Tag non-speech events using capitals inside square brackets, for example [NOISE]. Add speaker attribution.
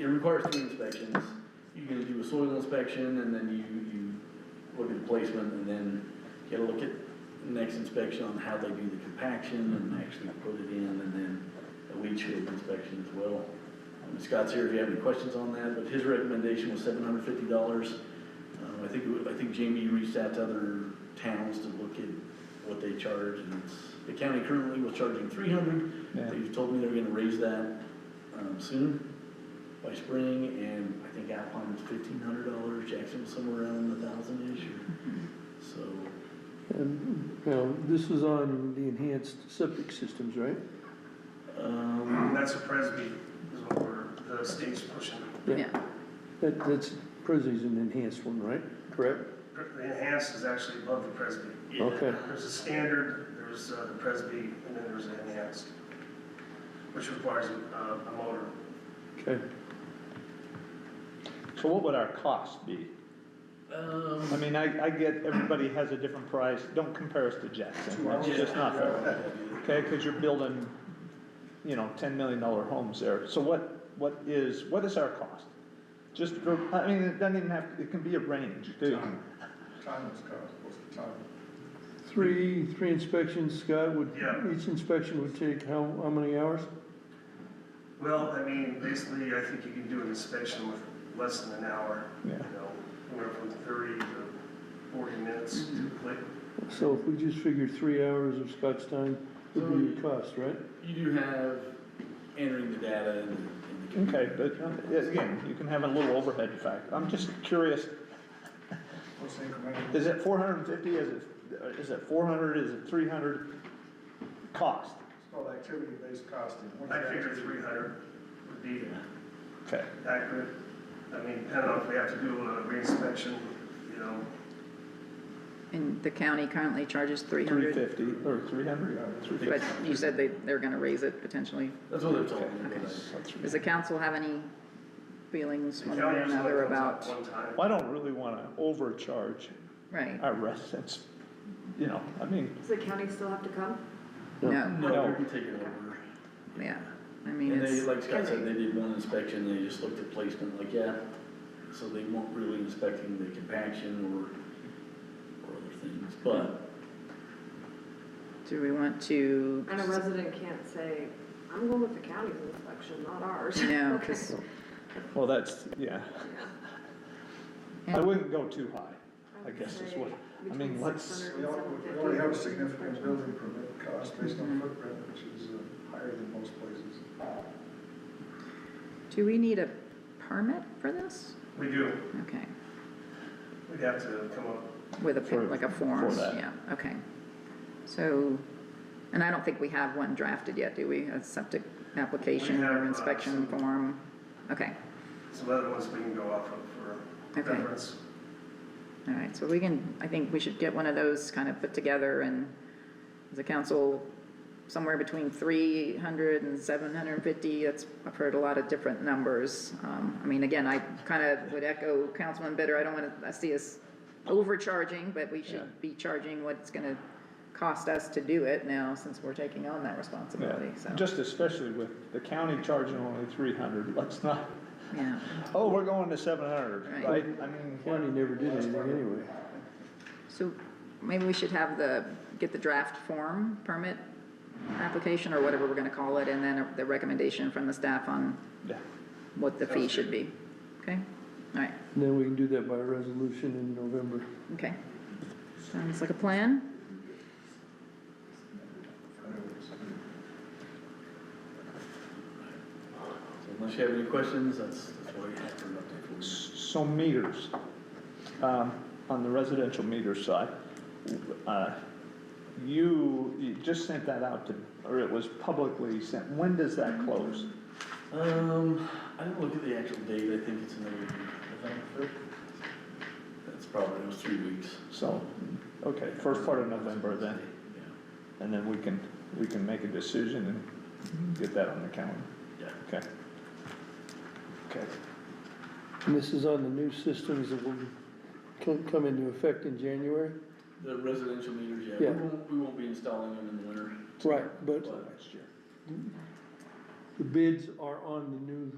Speaker 1: it requires two inspections. You can do a soil inspection and then you, you look at the placement and then you gotta look at the next inspection on how they do the compaction and actually put it in and then a leach field inspection as well. Um, Scott's here if you have any questions on that, but his recommendation was seven hundred fifty dollars. Um, I think, it wa- I think Jamie reached out to other towns to look at what they charge and it's, the county currently was charging three hundred.
Speaker 2: Yeah.
Speaker 1: They've told me they're gonna raise that, um, soon, by spring, and I think Alpine was fifteen hundred dollars, Jackson was somewhere around a thousand-ish, or- so.
Speaker 2: And, you know, this is on the enhanced septic systems, right?
Speaker 1: Um,
Speaker 3: And Mm-hmm. that's a Presby, is what we're, the state's pushing.
Speaker 4: Yeah.
Speaker 2: That, that's, Presley's an enhanced one, right? Correct?
Speaker 3: The enhanced is actually above the Presby.
Speaker 2: Okay.
Speaker 3: There's a standard, there's uh, the Presby, and then there's an enhanced, which requires uh, a motor.
Speaker 2: Okay.
Speaker 5: So what would our cost be? I
Speaker 1: um,
Speaker 5: mean, I, I get everybody has a different price, don't compare us to Jackson, that's just not fair. Okay, because you're building, you know, ten million dollar homes there, so what, what is, what is our cost? Just, for- I mean, it doesn't even have, it can be a range, too.
Speaker 6: Time is kind of supposed to time.
Speaker 2: Three, three inspections, Scott, would,
Speaker 3: Yeah.
Speaker 2: each inspection would take how, how many hours?
Speaker 3: Well, I mean, basically, I think you can do an inspection with less than an hour, you
Speaker 5: Yeah.
Speaker 3: know, anywhere from thirty to forty minutes to click.
Speaker 2: So if we just figure three hours of Scott's time would be your cost, right?
Speaker 1: you do have entering the data in, in the.
Speaker 5: Okay, but um, again, you can have a little overhead fact, I'm just curious,
Speaker 6: What's incremental?
Speaker 5: is it four hundred and fifty, is it, is it four hundred, is it three hundred cost?
Speaker 6: It's called activity-based costing. What
Speaker 3: I
Speaker 6: is that?
Speaker 3: figure three hundred would be
Speaker 5: Okay.
Speaker 3: accurate. I mean, depending on if we have to do a reinspection, you know,
Speaker 4: And the county currently charges three
Speaker 5: Three
Speaker 4: hundred,
Speaker 5: fifty, or three hundred, three
Speaker 4: but
Speaker 5: fifty.
Speaker 4: you said they, they're gonna raise it potentially.
Speaker 1: That's what they're talking
Speaker 4: Okay.
Speaker 1: about.
Speaker 4: Does the council have any feelings one way or
Speaker 3: County usually
Speaker 4: another
Speaker 3: comes up
Speaker 4: about,
Speaker 3: One time.
Speaker 5: I don't really wanna overcharge
Speaker 4: right?
Speaker 5: our residents, you know, I mean,
Speaker 7: Does the county still have to come?
Speaker 4: No,
Speaker 1: No,
Speaker 5: No.
Speaker 1: they're gonna take it over.
Speaker 4: yeah, I mean,
Speaker 1: And they,
Speaker 4: it's,
Speaker 1: like Scott said, they did one inspection, they just looked at placement, like, yeah. So they weren't really inspecting the compaction or, or other things, but
Speaker 4: do we want to?
Speaker 7: And a resident can't say, I'm going with the county's inspection, not ours.
Speaker 4: [LAUGHS] No, because,
Speaker 5: well, that's, yeah, I wouldn't go too high. I guess is what- I mean, let's-
Speaker 6: We al- we already have a significant building permit cost based on footprint, which is uh, higher than most places.
Speaker 4: do we need a permit for this?
Speaker 3: We do,
Speaker 4: Okay,
Speaker 3: we'd have to come up
Speaker 4: with a,
Speaker 5: For-
Speaker 4: like a form,
Speaker 5: for that.
Speaker 4: yeah, okay. So, and I don't think we have one drafted yet, do we? A septic application
Speaker 3: have,
Speaker 4: or
Speaker 3: uh,
Speaker 4: inspection
Speaker 3: some-
Speaker 4: form? Okay.
Speaker 3: some other ones we can go off of for
Speaker 4: Okay.
Speaker 3: reference.
Speaker 4: All right, so we can, I think we should get one of those kind of put together and as a council, somewhere between 300 and 750, that's, I've heard a lot of different numbers. Um, I mean, again, I kind of would echo Councilman Bitter, I don't want to, I see us overcharging, but we
Speaker 5: Yeah.
Speaker 4: should be charging what it's going to cost us to do it now since we're taking on that responsibility, so.
Speaker 5: Yeah, just especially with the county charging only three hundred, let's not,
Speaker 4: Yeah,
Speaker 5: oh, we're going to seven hundred,
Speaker 4: Right.
Speaker 5: right? I mean,
Speaker 2: County never did anything anyway.
Speaker 4: so maybe we should have the, get the draft form permit application or whatever we're going to call it, and then the recommendation from the staff on
Speaker 5: yeah,
Speaker 4: what the fee should be. Okay? All right,
Speaker 2: And then we can do that by resolution in November.
Speaker 4: okay. Sounds like a plan.
Speaker 1: so unless you have any questions, that's, that's why you have to update for us.
Speaker 5: so meters, um, on the residential meter side, uh, you, you just sent that out to, or it was publicly sent, when does that close?
Speaker 1: Um, I didn't look at the actual date, I think it's another, I think, that's probably, it was three weeks.
Speaker 5: So, okay, first part of November then, and then we can, we can make a decision and get that on the calendar,
Speaker 1: Yeah,
Speaker 5: okay? Okay,
Speaker 2: And this is on the new systems that will co- come into effect in January?
Speaker 1: the residential meters, yeah,
Speaker 2: Yeah.
Speaker 1: we won't, we won't be installing them in the winter.
Speaker 2: Right, but
Speaker 1: But
Speaker 5: next year.
Speaker 2: the bids are on the new